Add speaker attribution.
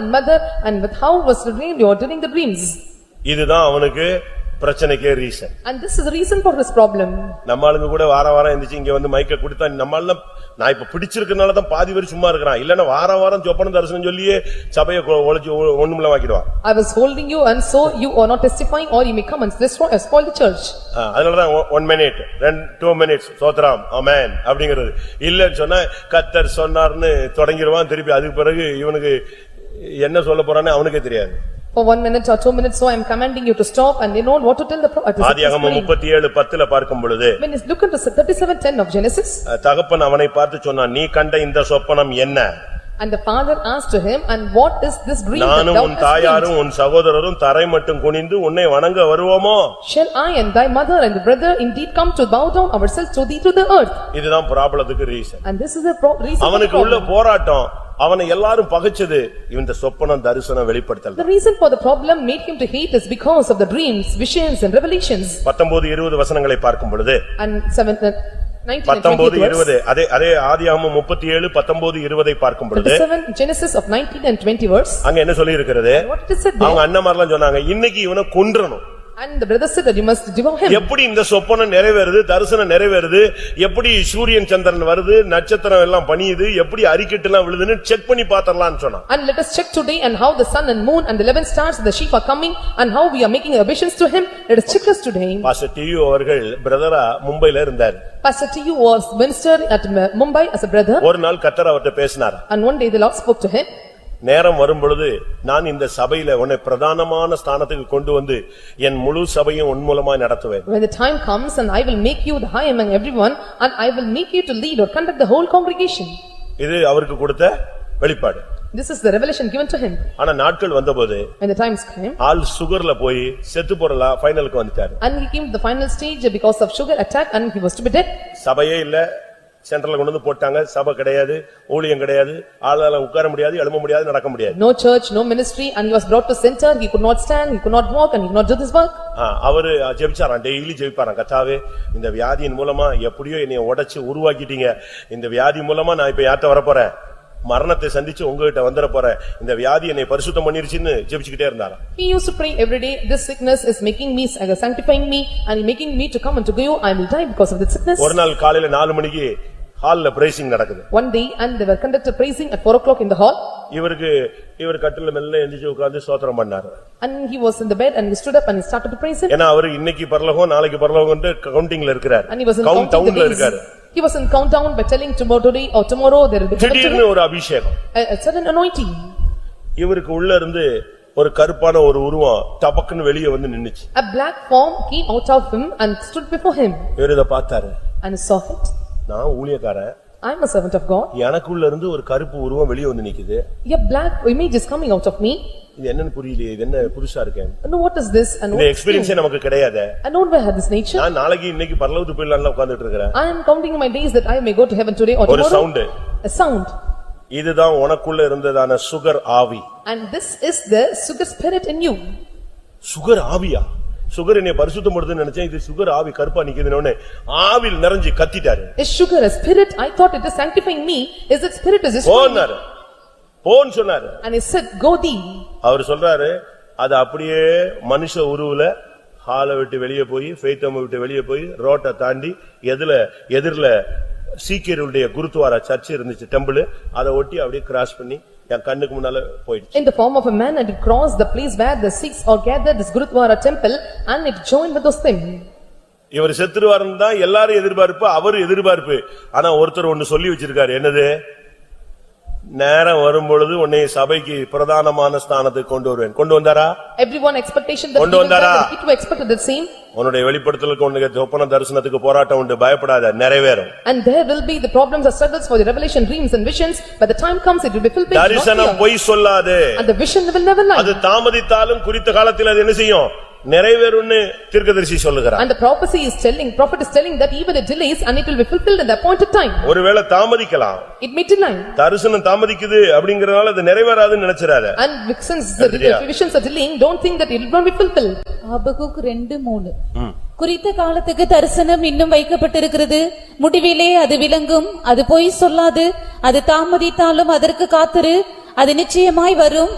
Speaker 1: and mother and with how was redeemed or during the dreams.
Speaker 2: இதுதான் அவனுக்கு பிரச்சனைக்கே reason
Speaker 1: And this is the reason for his problem.
Speaker 2: நம்ம ஆளுங்க கூட வாரம் வாரம் எந்திரிச்சு இங்க வந்து மைக்க கொடுத்தா நம்ம எல்லாம் நான் இப்ப பிடிச்சிருக்கனால தான் பாதி பேர் சும்மா இருக்கிறான் இல்லன்னா வாரம் வாரம் சொப்பன தரிசனம் சொல்லியே சபையை கொ- ஒழிச்சு ஒ- ஒண்ணுமில்ல வாக்கிடுவான்
Speaker 1: I was holding you and so you are not testifying or you may come and destroy and spoil the church.
Speaker 2: ஆ, அதனாலதான் ஒன் மினிட் ரெண்டு டூ மினிட்ஸ் சோத்ராம் அமேன் அப்படிங்கிறது இல்லன்னு சொன்னா கத்தர் சொன்னார்னு தொடங்கிடுவான் திருப்பி அதுக்கு பிறகு இவனுக்கு என்ன சொல்லப் போறான்னு அவனுக்கே தெரியாது
Speaker 1: For one minute or two minutes, so I am commanding you to stop and they know what to tell the prophet.
Speaker 2: ஆதியாகமம் முப்பத்தி ஏழு பத்துல பார்க்கும் பொழுது
Speaker 1: When is look into thirty-seven ten of Genesis
Speaker 2: அஹ், தகப்பன் அவனை பார்த்து சொன்னான் நீ கண்ட இந்த சொப்பனம் என்ன
Speaker 1: and the father asked to him and what is this dream that
Speaker 2: நானும்
Speaker 1: thou
Speaker 2: உன்
Speaker 1: hast dreamed?
Speaker 2: தாயாரும் உன் சகோதரரும் தரை மட்டும் குனிந்து உன்னை வணங்க வருவோமோ
Speaker 1: Shall I and thy mother and brother indeed come to bow down ourselves to thee to the earth?
Speaker 2: இதுதான் ப்ராப்ளத்துக்கு reason
Speaker 1: And this is the pro- reason. for the
Speaker 2: அவனுக்கு உள்ள
Speaker 1: problem.
Speaker 2: போராட்டம் அவனை எல்லாரும் பகைச்சது இந்த சொப்பனம் தரிசனம் வெளிப்படுத்தல
Speaker 1: The reason for the problem made him to hate is because of the dreams, visions and revelations.
Speaker 2: பத்தொன்பது இருபது வசனங்களை பார்க்கும் பொழுது
Speaker 1: And seven, uh, nineteen and
Speaker 2: பத்தொன்பது
Speaker 1: twenty
Speaker 2: இருபது
Speaker 1: verse.
Speaker 2: அதே அதே ஆதியாகமம் முப்பத்தி ஏழு பத்தொன்பது இருபதை பார்க்கும் பொழுது
Speaker 1: Thirty-seven Genesis of nineteen and twenty verse.
Speaker 2: அங்க என்ன சொல்லி இருக்கிறது
Speaker 1: What it is said
Speaker 2: அவங்க
Speaker 1: there?
Speaker 2: அண்ணமாரெல்லாம் சொன்னாங்க இன்னைக்கு இவனை கொன்றணும்
Speaker 1: And the brother said that you must devour him.
Speaker 2: எப்படி இந்த சொப்பனம் நிறைவேறுது தரிசனம் நிறைவேறுது எப்படி சூரியன் சந்திரன் வருது நட்சத்திரம் எல்லாம் பணியுது எப்படி அறிக்கட்டு எல்லாம் விழுதுன்னு செக் பண்ணி பாத்திரலாம்னு சொன்னான்
Speaker 1: And let us check today and how the sun and moon and the eleven stars and the sheep are coming and how we are making ambitions to him. Let us check us today.
Speaker 2: Pastor TV அவர்கள் பிரதரா மும்பைல இருந்தார்
Speaker 1: Pastor T U was minister at M- Mumbai as a brother
Speaker 2: ஒரு நாள் கத்தர் அவர்ட்ட பேசினார்
Speaker 1: and one day the Lord spoke to him.
Speaker 2: நேரம் வரும்பொழுது நான் இந்த சபையில உன்னை பிரதானமான ஸ்தானத்துக்கு கொண்டு வந்து என் முழு சபையும் உன் மூலமா நடத்துவேன்
Speaker 1: When the time comes and I will make you the high among everyone and I will make you to lead or conduct the whole congregation.
Speaker 2: இது அவருக்கு கொடுத்த வெளிப்பாடு
Speaker 1: This is the revelation given to him
Speaker 2: ஆனா நாட்கள் வந்தபோது
Speaker 1: when the times came
Speaker 2: ஆள் சுகர்ல போய் செத்து போறலா ஃபைனலுக்கு வந்துட்டாரு
Speaker 1: and he came to the final stage because of sugar attack and he was to be dead.
Speaker 2: சபையே இல்ல சென்ட்ரல்ல கொண்டு வந்து போட்டாங்க சபை கிடையாது ஊழியம் கிடையாது ஆளால உட்கார முடியாது எழும்ப முடியாது நடக்க முடியாது
Speaker 1: No church, no ministry and he was brought to center, he could not stand, he could not walk and he could not do this work.
Speaker 2: ஆ, அவரு ஜெபிச்சாராம் டெய்லி ஜெபிப்பாராம் கத்தாவே இந்த வியாதியின் மூலமா எப்படியோ என்னைய உடைச்சு உருவாக்கிட்டீங்க இந்த வியாதி மூலமா நான் இப்ப யார்கிட்ட வரப்போறேன் மரணத்தை சந்திச்சு உங்ககிட்ட வந்துட போறேன் இந்த வியாதி என்னை பரிசுத்தம் பண்ணிருச்சுன்னு ஜெபிச்சுக்கிட்டே இருந்தாராம்
Speaker 1: He used to pray every day, this sickness is making me, uh, sanctifying me and making me to come and to go, I will die because of this sickness.
Speaker 2: ஒரு நாள் காலையில நாலு மணிக்கு ஹால்ல பிரேசிங் நடக்குது
Speaker 1: One day and they were conducted praising at four o'clock in the hall
Speaker 2: இவருக்கு இவர் கட்டில மெல்ல எந்திரிச்சு உட்கார்ந்து ஸ்தோத்திரம் பண்ணாரு
Speaker 1: and he was in the bed and he stood up and he started to praise him.
Speaker 2: ஏன்னா அவரு இன்னைக்கு பரலோகம் நாளைக்கு பரலோகம் கவுண்டிங்ல இருக்கிறார்
Speaker 1: And he was in
Speaker 2: count
Speaker 1: counting
Speaker 2: டவுன்ல
Speaker 1: the days.
Speaker 2: இருக்காரு
Speaker 1: He was in countdown by telling tomorrow today or tomorrow there will be conducted
Speaker 2: திடீர்னு ஒரு அபிஷேகம்
Speaker 1: a a sudden anointing.
Speaker 2: இவருக்கு உள்ள இருந்து ஒரு கருப்பான ஒரு உருவம் டபக்குன்னு வெளியே வந்து நின்னுச்சு
Speaker 1: A black form came out of him and stood before him
Speaker 2: இவர் இதை பார்த்தாரு
Speaker 1: and he saw it.
Speaker 2: நான் ஊழியக்காரன்
Speaker 1: I am a servant of God.
Speaker 2: எனக்குள்ள இருந்து ஒரு கருப்பு உருவம் வெளியே வந்து நிக்குது
Speaker 1: A black image is coming out of me.
Speaker 2: இது என்னன்னு புரியலையே இது என்ன புதுசா இருக்கேன்
Speaker 1: And what is this and
Speaker 2: இந்த
Speaker 1: what is this?
Speaker 2: எக்ஸ்பீரியன்ஸே நமக்கு கிடையாது
Speaker 1: I don't have this nature.
Speaker 2: நான் நாளைக்கு இன்னைக்கு பரலோகத்துக்கு போயிடலாம்னு உட்கார்ந்துட்டு இருக்கிறேன்
Speaker 1: I am counting my days that I may go to heaven today or
Speaker 2: ஒரு
Speaker 1: tomorrow.
Speaker 2: Sound
Speaker 1: A sound.
Speaker 2: இதுதான் உனக்குள்ள இருந்ததான சுகர் ஆவி
Speaker 1: And this is the sugar spirit in you.
Speaker 2: Sugar ஆவியா சுகர் என்னை பரிசுத்தப்படுதுன்னு நினைச்சேன் இது சுகர் ஆவி கருப்பா நிக்குதுன்னு ஆவில் நிறைஞ்சு கத்திட்டாரு
Speaker 1: Is sugar a spirit? I thought it is sanctifying me. Is it spirit is destroying me?
Speaker 2: போனாரு போன்னு சொன்னாரு
Speaker 1: And he said, "Go thee."
Speaker 2: அவர் சொல்றாரு அது அப்படியே மனுஷ உருவுல ஹாலை விட்டு வெளியே போய் ஃபேத்தம் விட்டு வெளியே போய் ரோட்டை தாண்டி எதுல எதிரில சீக்கியருடைய குருத்துவாரா சர்ச் இருந்துச்சு டெம்பிள் அதை ஒட்டி அப்படியே கிராஸ் பண்ணி என் கண்ணுக்கு முன்னால போயிடுச்சு
Speaker 1: In the form of a man and it crossed the place where the Sikhs are gathered is Gurudwara temple and it joined with those things.
Speaker 2: இவர் செத்துருவாருன்னு தான் எல்லாரும் எதிர்பார்ப்பு அவர் எதிர்பார்ப்பு ஆனா ஒருத்தர் ஒன்னு சொல்லி வச்சிருக்காரு என்னது நேரம் வரும்பொழுது உன்னை சபைக்கு பிரதானமான ஸ்தானத்துக்கு கொண்டு வருவேன் கொண்டு வந்தாரா
Speaker 1: Everyone expectation that
Speaker 2: கொண்டு
Speaker 1: even
Speaker 2: வந்தாரா?
Speaker 1: that it were expected the same
Speaker 2: உன்னுடைய வெளிப்படுத்தலுக்கு உன்னுக்கு சொப்பன தரிசனத்துக்கு போராட்டம் உண்டு பயப்படாத நிறைவேறும்
Speaker 1: and there will be the problems or struggles for the revelation dreams and visions by the time comes it will be fulfilled not
Speaker 2: தரிசனம்
Speaker 1: fear.
Speaker 2: பொய் சொல்லாது
Speaker 1: and the vision will never lie
Speaker 2: அது தாமதித்தாலும் குறித்த காலத்தில் அது என்ன செய்யும் நிறைவேறும்னு தீர்க்கதரிசி சொல்லுகிறார்
Speaker 1: and the prophecy is telling prophet is telling that even it delays and it will be fulfilled in the appointed time
Speaker 2: ஒருவேளை தாமதிக்கலாம்
Speaker 1: it may delay
Speaker 2: தரிசனம் தாமதிக்குது அப்படிங்கறதுனால அது நிறைவேறாதுன்னு நினைச்சிராத
Speaker 1: and since the
Speaker 2: Hallelujah.
Speaker 1: visions are delaying don't think that it will not be fulfilled
Speaker 3: Habakkuk ரெண்டு மூணு குறித்த காலத்துக்கு தரிசனம் இன்னும் வைக்கப்பட்டிருக்கிறது முடிவிலே அது விளங்கும் அது பொய் சொல்லாது அது தாமதித்தாலும் அதற்கு காத்திரு அது நிச்சயமாய் வரும்